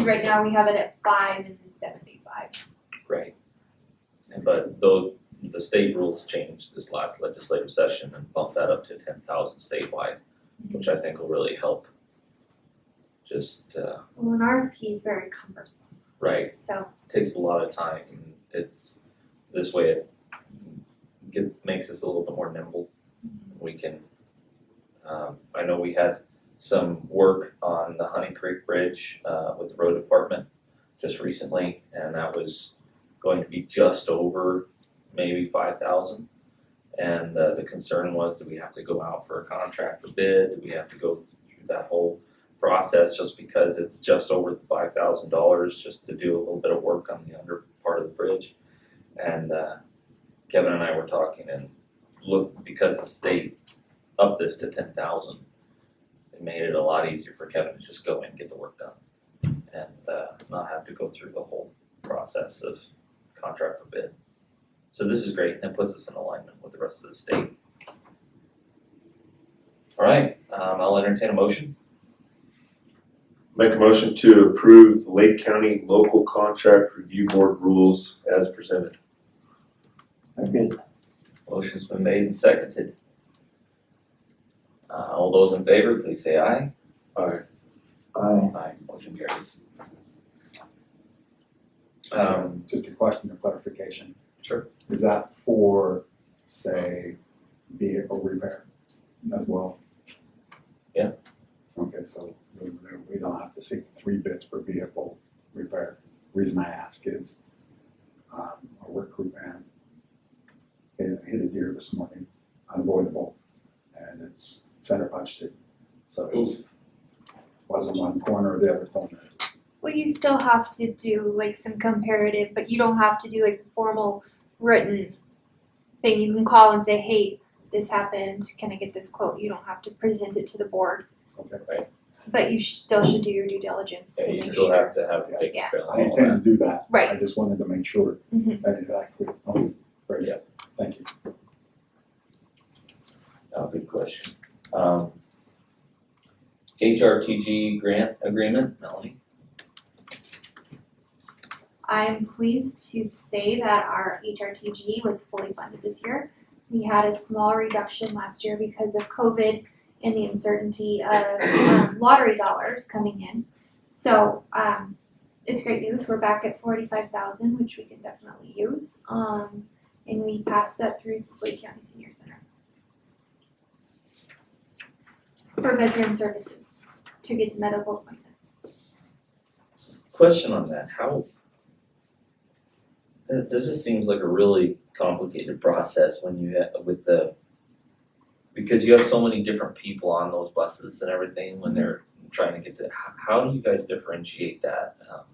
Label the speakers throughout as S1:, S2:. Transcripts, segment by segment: S1: right now we have it at five and then seventy-five.
S2: Right. And but though the state rules changed this last legislative session and bumped that up to ten thousand statewide, which I think will really help. Just uh
S1: Well, an RFP is very cumbersome,
S2: right,
S1: so
S2: takes a lot of time and it's this way it get makes us a little bit more nimble. We can um I know we had some work on the Honey Creek Bridge uh with the road department just recently and that was going to be just over maybe five thousand. And uh, the concern was, do we have to go out for a contract or bid? Do we have to go through that whole process just because it's just over five thousand dollars just to do a little bit of work on the under part of the bridge? And uh, Kevin and I were talking and look, because the state upped this to ten thousand, it made it a lot easier for Kevin to just go in, get the work done, and uh, not have to go through the whole process of contract for bid. So this is great, and puts us in alignment with the rest of the state. All right, um, I'll entertain a motion.
S3: Make a motion to approve the Lake County Local Contract Review Board rules as presented.
S4: Okay,
S2: Motion's been made and seconded. Uh, all those in favor, please say aye.
S3: Aye.
S4: I,
S2: Aye. Motion carries.
S5: Just a-
S2: Um,
S5: Just a question of clarification.
S2: Sure.
S5: Is that for, say, vehicle repair as well?
S2: Yeah.
S5: Okay, so we, we don't have to seek three bids per vehicle repair. Reason I ask is, um, a work crew van hit, hit a deer this morning, unavoidable, and it's center punched it. So it's, wasn't one corner or the other corner,
S1: Well, you still have to do like some comparative, but you don't have to do like the formal written thing. You can call and say, hey, this happened, can I get this quote? You don't have to present it to the board,
S5: okay?
S1: but you sh- still should do your due diligence
S2: yeah,
S1: to
S2: you
S1: make
S2: still
S1: sure.
S2: have to have a big
S1: Yeah.
S2: trail
S5: I
S2: and all that.
S5: intend to do that.
S1: Right.
S5: I just wanted to make sure
S1: Mhm.
S5: that is accurate. Oh, very good. Thank you.
S2: Oh, good question. Um, HRTG grant agreement, Melanie?
S1: I'm pleased to say that our HRTG was fully funded this year. We had a small reduction last year because of COVID and the uncertainty of um, lottery dollars coming in. So um, it's great news. We're back at forty-five thousand, which we can definitely use. Um, and we passed that through to Lake County Senior Center for veteran services to get to medical appointments.
S2: Question on that, how? That, that just seems like a really complicated process when you, ha- with the, because you have so many different people on those buses and everything when they're trying to get to, how, how do you guys differentiate that? Um,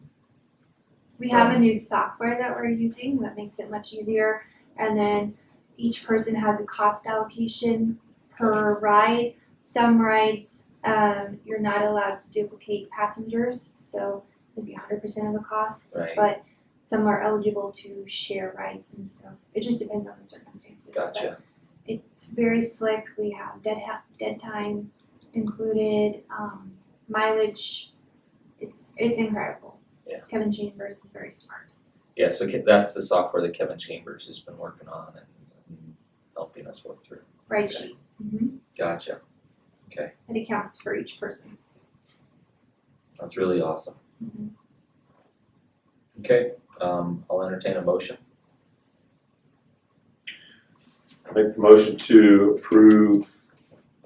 S1: We have a new software that we're using that makes it much easier. And then each person has a cost allocation per ride. Some rides, um, you're not allowed to duplicate passengers, so it'd be hundred percent of the cost.
S2: Right.
S1: But some are eligible to share rides and so it just depends on the circumstances. But
S2: Gotcha,
S1: it's very slick. We have dead ha- dead time included, um, mileage. It's it's incredible.
S2: Yeah.
S1: Kevin Chambers is very smart.
S2: yeah, so Ke- that's the software that Kevin Chambers has been working on and helping us work through.
S1: Right
S2: Okay.
S1: sheet. hmm
S2: Gotcha.
S1: It accounts for each person.
S2: That's really awesome.
S1: Mhm.
S2: Okay, um, I'll entertain a motion.
S3: Make the motion to approve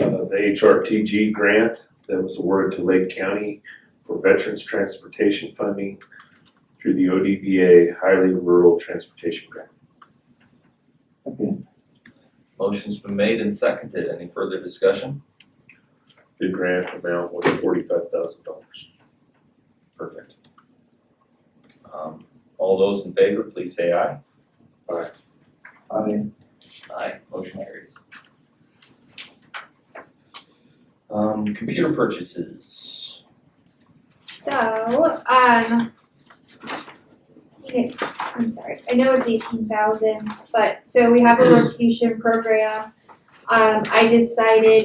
S3: uh, the HRTG grant that was awarded to Lake County for Veterans Transportation Funding through the ODVA Highly Rural Transportation Grant.
S4: okay,
S2: Motion's been made and seconded. Any further discussion?
S3: The grant amount was forty-five thousand dollars.
S2: Perfect. Um, all those in favor, please say aye.
S4: I,
S2: Aye. Motion carries. Um, computer purchases.
S1: So, um, yeah, I'm sorry. I know it's eighteen thousand, but so we have a rotation program. Um, I decided